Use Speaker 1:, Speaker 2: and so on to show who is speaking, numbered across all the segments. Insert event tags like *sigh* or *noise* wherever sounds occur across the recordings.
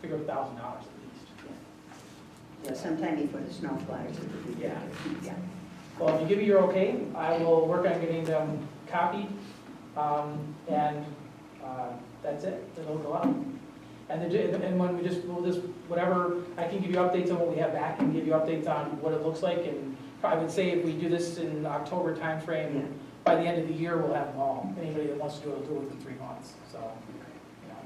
Speaker 1: figure a thousand dollars at least.
Speaker 2: Yeah, sometime before the snow flies. it would be
Speaker 1: Yeah.
Speaker 2: good. Yeah.
Speaker 1: Well, if you give me your okay, I will work on getting them copied, um, and, uh, that's it, then it'll go out. And the, di- and when we just, we'll just, whatever, I can give you updates on what we have back and give you updates on what it looks like, and I would say if we do this in October
Speaker 2: Yeah.
Speaker 1: timeframe, by the end of the year, we'll have them all, anybody that wants to do it, will do it within three months, so, you know.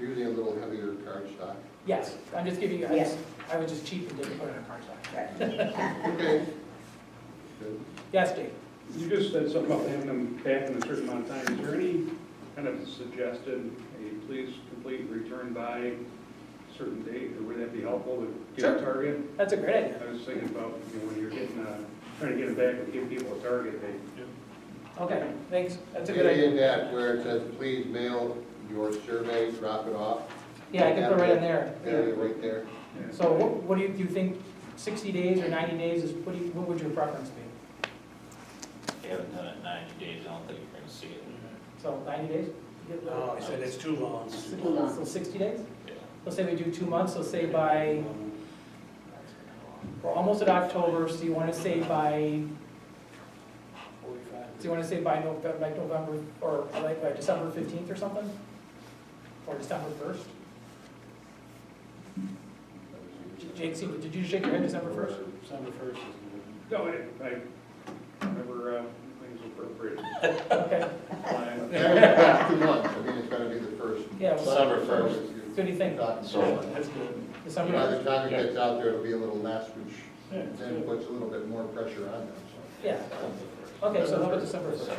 Speaker 3: You're Using a little heavier cardstock.
Speaker 1: Yes, I'm just giving you, I
Speaker 2: Yes.
Speaker 1: just, I was just cheap and didn't put it in a card stock.
Speaker 3: Okay. Good.
Speaker 1: Yes, Dave?
Speaker 4: You just said something about having them back in a certain amount of time. Is there any kind of suggested, a please complete and return by a certain date, or would that be helpful to give a
Speaker 1: Sure.
Speaker 4: target?
Speaker 1: That's a great idea.
Speaker 4: I was thinking about, you know, when you're getting, uh, trying to get them back and give people a target date.
Speaker 1: Okay, thanks, that's a good
Speaker 3: Getting
Speaker 1: idea.
Speaker 3: in that where it says, please mail your survey, drop it off,
Speaker 1: Yeah, I can put it right in there.
Speaker 3: area right there.
Speaker 4: Yeah.
Speaker 1: So what, what do you, do you think sixty days or ninety days is, what do you, what would your preference be?
Speaker 5: They haven't done it in ninety days, I don't think you're gonna see it.
Speaker 1: So ninety days?
Speaker 6: No, I Oh, said it's too long.
Speaker 2: It's too long.
Speaker 1: So sixty days?
Speaker 5: Yeah.
Speaker 1: Let's say we do two months, so say by, we're almost at October, so you wanna say by, so you wanna say by November, like November, or like by December fifteenth or something? Or December first? Jake, see- did you shake your head December first?
Speaker 3: *laughs*
Speaker 6: December first is
Speaker 4: No, I, I remember, uh, things appropriate.
Speaker 1: Okay,
Speaker 3: *laughs*
Speaker 4: Fine.
Speaker 3: Yeah, it's got two months, I mean, it's gotta be the first.
Speaker 1: yeah, so
Speaker 5: December first.
Speaker 1: what do you think?
Speaker 5: So-
Speaker 6: the. That's good.
Speaker 1: December
Speaker 3: By
Speaker 1: first?
Speaker 3: the time it gets out there, it'll be a little less, which
Speaker 6: Yeah, it's
Speaker 3: then
Speaker 6: good.
Speaker 3: puts a little bit more pressure on them, so.
Speaker 1: Yeah, okay, so how about December first?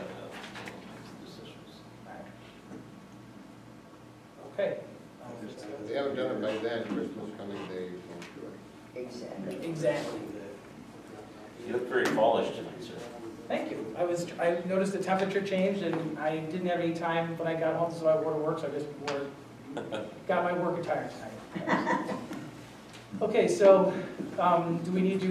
Speaker 1: Okay.
Speaker 3: If they haven't done it by then, Christmas coming, they won't do it.
Speaker 5: *laughs*
Speaker 2: Exactly.
Speaker 1: Exactly.
Speaker 5: You look very polished tonight, sir.
Speaker 1: Thank you. I was, I noticed the temperature changed and I didn't have any time when I got home, so I wore to work, so I just wore, got my work attire tonight. Okay, so, um, do we need to,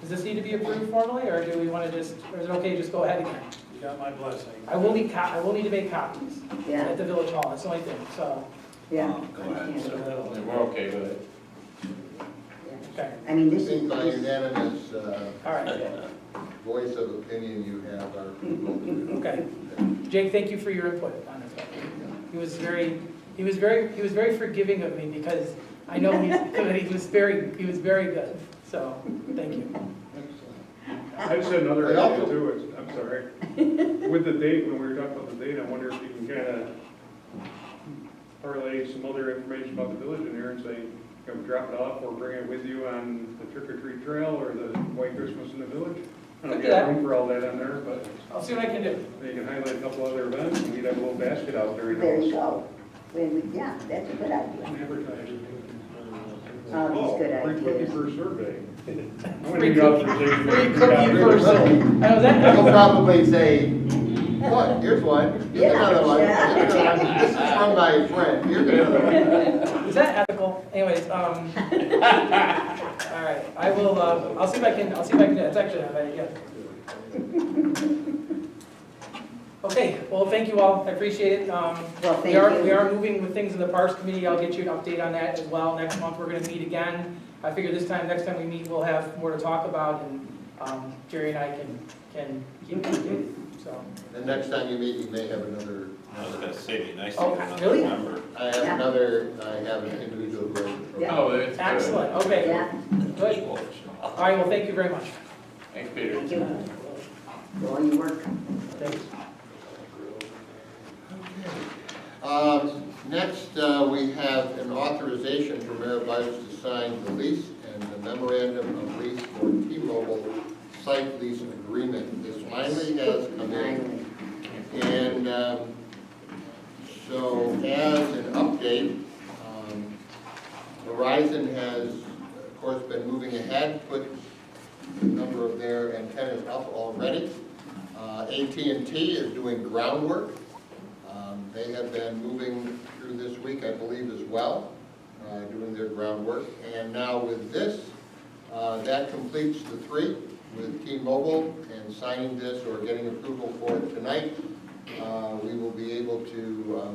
Speaker 1: does this need to be approved formally or do we want to just, or is it okay, just go ahead again?
Speaker 6: You got my blessing.
Speaker 1: I will need co, I will need to make copies at
Speaker 2: Yeah,
Speaker 1: the village hall, that's the only thing, so, Oh,
Speaker 2: yeah.
Speaker 5: Go ahead,
Speaker 6: So that'll-
Speaker 5: We're okay with it.
Speaker 2: Yeah.
Speaker 1: okay,
Speaker 2: I mean,
Speaker 3: I
Speaker 2: this
Speaker 3: think
Speaker 2: is,
Speaker 3: by
Speaker 2: this-
Speaker 3: unanimous uh,
Speaker 1: all right.
Speaker 3: voice of opinion, you have our approval to do it.
Speaker 1: Okay. Jake, thank you for your input on this. He was very, he was very, he was very forgiving of me because I know he's *laughs* good, he was very, he was very good, so, thank you.
Speaker 3: Excellent.
Speaker 4: I just had another
Speaker 3: They
Speaker 4: idea
Speaker 3: also-
Speaker 4: too, it's- I'm sorry. With the date, when we were talking about the date, I wonder if you can kind of parlay some other information about the village in here and say, you know, drop it off or bring it with you on the trick or treat trail or the white Christmas in the village. I
Speaker 1: Could
Speaker 4: don't
Speaker 1: do
Speaker 4: got
Speaker 1: that.
Speaker 4: room for all that on there, but
Speaker 1: I'll see what I can do.
Speaker 4: you can highlight a couple other events and we'd have a little basket out there. you know,
Speaker 2: there you go. When we- Yeah, that's a good idea.
Speaker 4: and advertise it.
Speaker 2: All these good
Speaker 4: Oh, free cookie
Speaker 2: ideas.
Speaker 4: for a survey. I'm gonna
Speaker 1: Free
Speaker 4: need authorization.
Speaker 1: Free cookie
Speaker 3: for a
Speaker 1: first.
Speaker 3: survey.
Speaker 1: I was
Speaker 3: They'll
Speaker 1: at,
Speaker 3: probably say, what, here's one, here's another one, here's another one. *laughs* this is from my friend, here's another one.
Speaker 1: is that ethical? Anyways, um, *laughs* all right, I will, uh, I'll see if I can, I'll see if I can, it's actually, yeah. Okay, well, thank you all, I appreciate it. Um,
Speaker 2: Well, thank
Speaker 1: We are, we
Speaker 2: you.
Speaker 1: are moving with things in the Parks Committee, I'll get you an update on that as well, next month we're gonna meet again. I figure this time, next time we meet, we'll have more to talk about, and, um, Jerry and I can, can keep updated, so.
Speaker 3: The next time you meet, you may have another,
Speaker 5: I was gonna say, it'd be nice to
Speaker 1: Oh,
Speaker 5: get another
Speaker 1: really?
Speaker 5: number.
Speaker 3: I have another, I have an individual growth.
Speaker 2: Yeah.
Speaker 7: Oh, that's good.
Speaker 1: Excellent, okay,
Speaker 2: Yeah,
Speaker 1: good. All right, well, thank you very much.
Speaker 7: Thanks, Peter.
Speaker 2: thank you. For all your work.
Speaker 1: Thanks.
Speaker 3: Um, Next, uh, we have an authorization for Mayor Byers to sign the lease and the memorandum of lease for T-Mobile site lease agreement. This finally has come in.
Speaker 2: Finally.
Speaker 3: And um, so as an update, um, Verizon has, of course, been moving ahead, put a number of their antennas up already. Uh, AT&T is doing groundwork. Um, They have been moving through this week, I believe, as well, uh, doing their groundwork. And now with this, uh, that completes the three with T-Mobile and signing this or getting approval for it tonight. uh, We will be able to um,